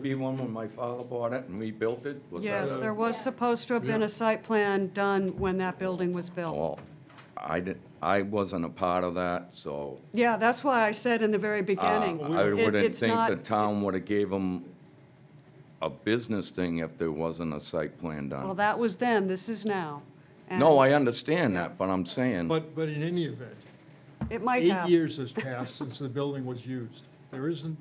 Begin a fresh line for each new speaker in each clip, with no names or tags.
be one when my father bought it and we built it? Was that
Yes,
a-
there was supposed to have been a site plan done when that building was built.
Well, I didn't, I wasn't a part of that, so
Yeah, that's why I said in the very beginning.
Uh, I
it-
wouldn't
it's
think
not-
the town would have gave them a business thing if there wasn't a site plan
Well,
done.
that was then, this is now. And
No, I understand that, but I'm saying,
But, but in any event,
It might
eight
have.
years has passed since the building was used. There isn't,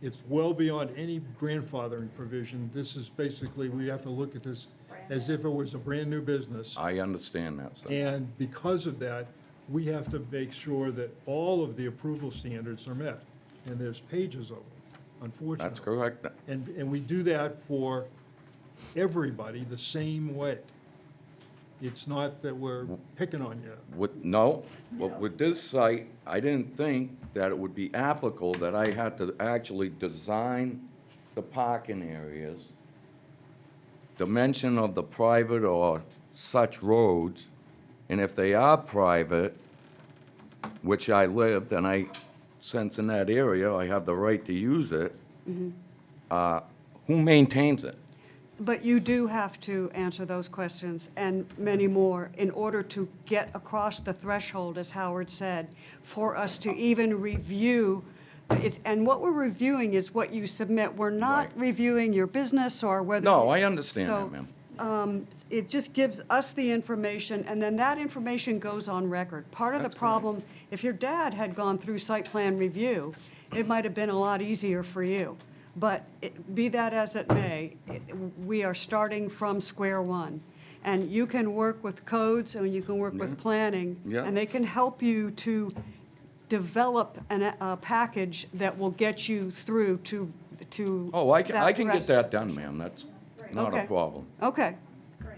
it's well beyond any grandfathering provision. This is basically, we have to look at this as if it was a brand-new business.
I understand that, sir.
And because of that, we have to make sure that all of the approval standards are met. And there's pages of them, unfortunately.
That's correct.
And, and we do that for everybody the same way. It's not that we're
Mm.
picking on you.
With, no, but with this site, I didn't think that it would be applicable that I had to actually design the parking areas, dimension of the private or such roads, and if they are private, which I live, then I sense in that area, I have the right to use it.
Mm-hmm.
Uh, Who maintains it?
But you do have to answer those questions and many more in order to get across the threshold, as Howard said, for us to even review. It's, and what we're reviewing is what you submit. We're not
Right.
reviewing your business or whether.
No, I understand
So,
that, ma'am.
it just gives us the information, and then that information goes on record. Part of the
That's correct.
problem, if your dad had gone through site plan review, it might have been a lot easier for you. But it- be that as it may, it- we are starting from square one. And you can work with codes, and you can work with planning.
Yeah.
And they can help you to develop an, a package that will get you through to, to.
Oh, I can, I can
thresh-
get that done, ma'am. That's not a
Okay.
problem.
Okay.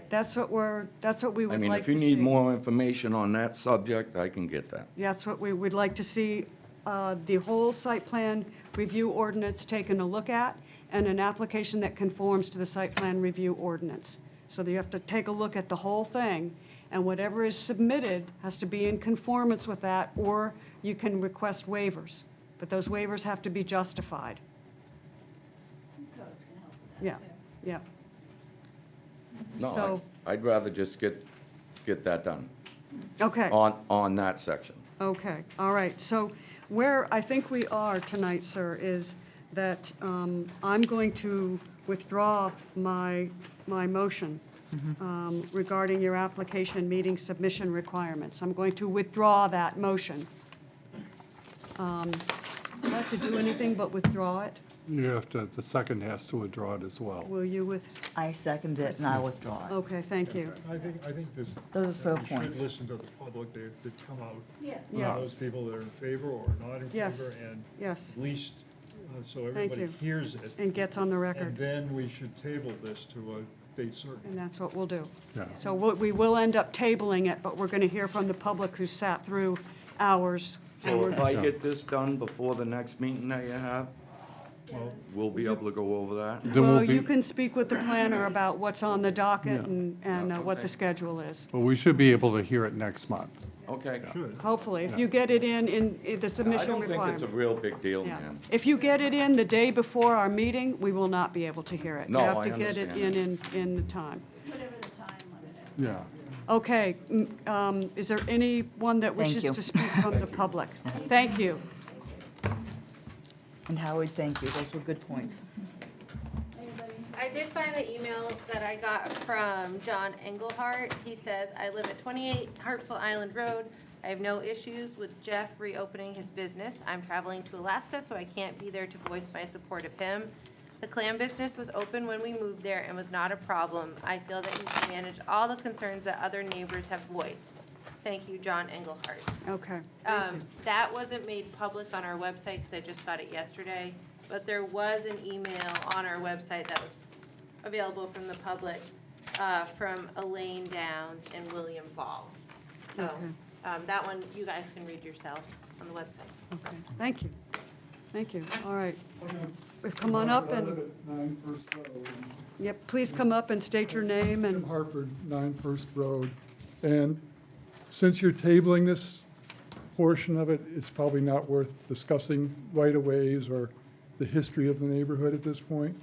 That's what we're, that's what we
I
would
mean,
like
if
to see.
you need more information on that subject, I can get that.
That's what we would like to see, uh, the whole site plan review ordinance taken a look at, and an application that conforms to the site plan review ordinance. So that you have to take a look at the whole thing, and whatever is submitted has to be in conformance with that, or you can request waivers. But those waivers have to be justified.
Codes can help with that.
Yeah, yeah.
too.
No,
So-
I- I'd rather just get, get that done
Okay.
on, on that section.
Okay, all right. So where I think we are tonight, sir, is that um, I'm going to withdraw my, my motion um, regarding your application meeting submission requirements. I'm going to withdraw that motion. Um, Do I have to do anything but withdraw it?
You have to, the second has to withdraw it as well.
Will you with,
I second it and I withdraw it.
okay, thank you.
I think, I think this.
Those are fair
You
points.
should listen to the public that, that come out.
Yeah.
Yes.
Those people that are in favor or not in
Yes.
favor, and
Yes,
at least, uh, so
Thank
everybody
you.
hears it.
and gets on the
And
record,
then we should table this to a date
and
certain.
that's what we'll do.
Yeah.
So what- we will end up tabling it, but we're going to hear from the public who sat through hours. and
So
we're-
if I get this done before the next meeting that you have,
Well,
we'll be able to go over that.
Then
Well,
we'll be-
you can speak with the planner about what's on the docket
Yeah.
and, and uh, what the schedule is.
Well, we should be able to hear it next month.
Okay.
Should.
Hopefully, if you get it in, in in the
I
submission
don't think it's a
requirement.
real big deal,
Yeah.
man.
If you get it in the day before our meeting, we will not be able to hear it.
No, I
You have to get it in, in,
understand.
in the time.
Whatever the time limit is.
Yeah.
Okay, mm, um, is there anyone that
Thank
wishes
you.
to speak from the public? Thank you.
And Howard, thank you, those were good points.
I did find the email that I got from John Englehart. He says, "I live at 28 Harpswell Island Road. I have no issues with Jeff reopening his business. I'm traveling to Alaska, so I can't be there to voice my support of him. The clam business was open when we moved there and was not a problem. I feel that he can manage all the concerns that other neighbors have voiced. Thank you, John Englehart."
Okay.
Um, that wasn't made public on our website, because I just got it yesterday, but there was an email on our website that was available from the public, uh, from Elaine Downs and William Ball. So, um, that one, you guys can read yourself on the website.
Okay. Thank you. Thank you. All right. Come on up and,
Nine First Road.
yep, please come up and state your name and.
Jim Hartford, Nine First Road. And since you're tabling this portion of it, it's probably not worth discussing right-of-ways or the history of the neighborhood at this point.